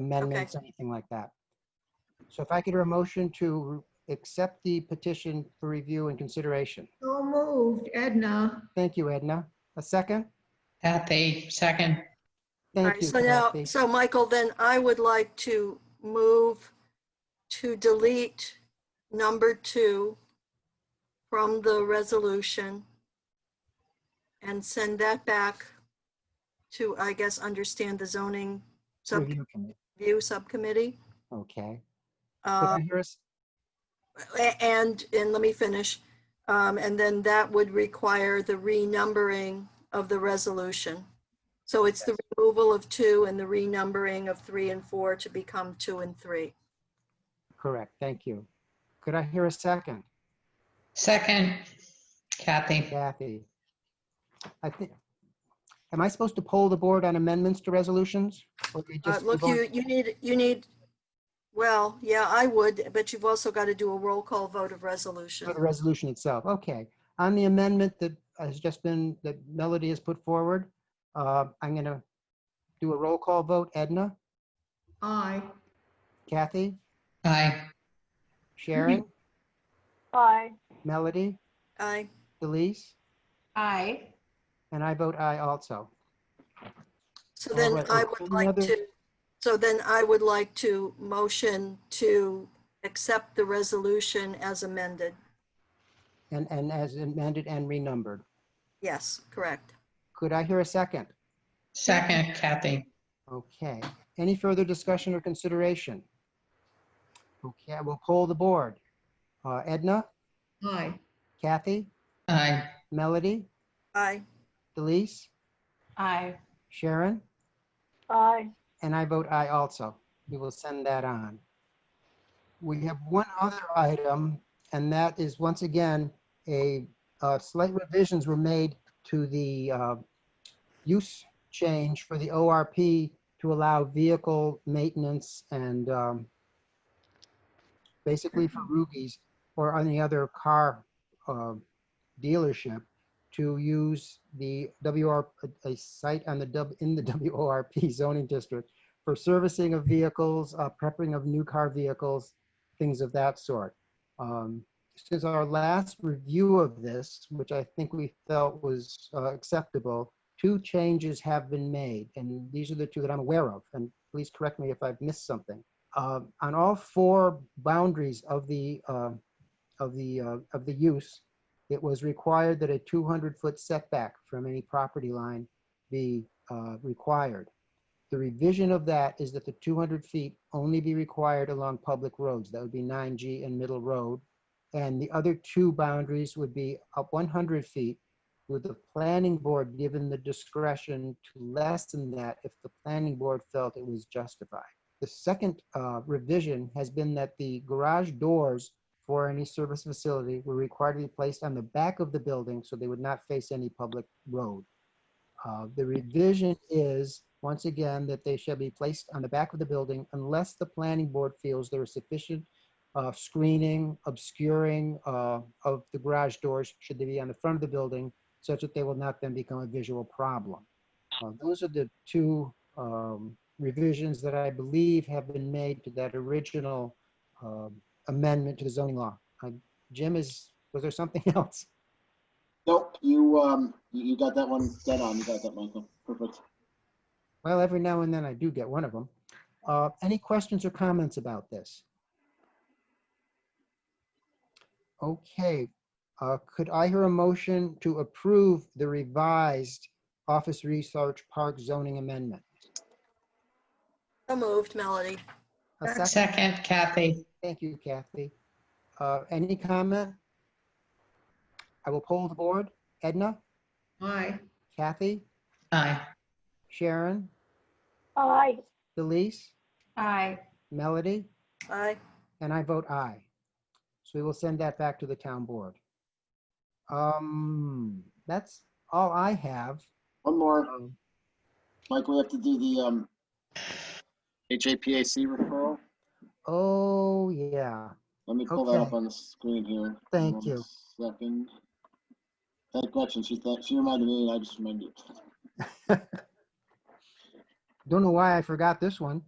amendments, anything like that. So if I could hear a motion to accept the petition for review and consideration. So moved, Edna. Thank you, Edna. A second? Kathy, second. All Thank right, you, so now, Kathy. so Michael, then I would like to move to delete number two from the resolution and send that back to, I guess, understand the zoning sub, Review committee. view subcommittee. Okay. Could Uh, I hear a s- A- And, and let me finish. Um, And then that would require the renumbering of the resolution. So it's the removal of two and the renumbering of three and four to become two and three. Correct, thank you. Could I hear a second? Second, Kathy. Kathy? I think, am I supposed to poll the board on amendments to resolutions? Or we Uh, just Look, vote- you, you need, you need, well, yeah, I would, but you've also got to do a roll call vote of resolution. For the resolution itself, okay. On the amendment that has just been, that Melody has put forward, uh, I'm going to do a roll call vote. Edna, Aye. Kathy, Aye. Sharon, Aye. Melody, Aye. Elise, Aye. and I vote aye also. So All then right, I and would any like other- to, so then I would like to motion to accept the resolution as amended. And, and as amended and renumbered. Yes, correct. Could I hear a second? Second, Kathy. Okay. Any further discussion or consideration? Okay, I will poll the board. Uh, Edna, Aye. Kathy, Aye. Melody, Aye. Elise, Aye. Sharon? Aye. And I vote aye also. We will send that on. We have one other item, and that is once again, a uh, slight revisions were made to the uh, use change for the ORP to allow vehicle maintenance and um, basically for Rugies or any other car uh, dealership to use the WR, a- a site on the, W- in the WORP zoning district for servicing of vehicles, uh, prepping of new car vehicles, things of that sort. Um, Since our last review of this, which I think we felt was uh, acceptable, two changes have been made, and these are the two that I'm aware of, and please correct me if I've missed something. Uh, On all four boundaries of the, uh, of the, uh, of the use, it was required that a 200-foot setback from any property line be uh, required. The revision of that is that the 200 feet only be required along public roads. That would be 9G and Middle Road. And the other two boundaries would be up 100 feet with the planning board given the discretion to lessen that if the planning board felt it was justified. The second uh, revision has been that the garage doors for any service facility were required to be placed on the back of the building so they would not face any public road. Uh, The revision is, once again, that they shall be placed on the back of the building unless the planning board feels there is sufficient uh, screening, obscuring uh, of the garage doors, should they be on the front of the building, such that they will not then become a visual problem. Uh, Those are the two um, revisions that I believe have been made to that original um, amendment to the zoning law. Uh, Jim, is, was there something else? Nope, you, um, you you got that one dead on. You got that, Michael. Perfect. Well, every now and then I do get one of them. Uh, Any questions or comments about this? Okay, uh, could I hear a motion to approve the revised Office Research Park zoning amendment? So moved, Melody. A second? Second, Kathy. Thank you, Kathy. Uh, Any comment? I will poll the board. Edna, Aye. Kathy, Aye. Sharon, Aye. Delise, Aye. Melody? Aye. And I vote aye. So we will send that back to the town board. Um, that's all I have. One more, Um, Mike, we have to do the, um, HAPAC referral. Oh, yeah. Let me pull that up Okay. on the screen here. Thank One you. Second. That question, she thought, she reminded me, and I just remembered. Don't know why I forgot this one.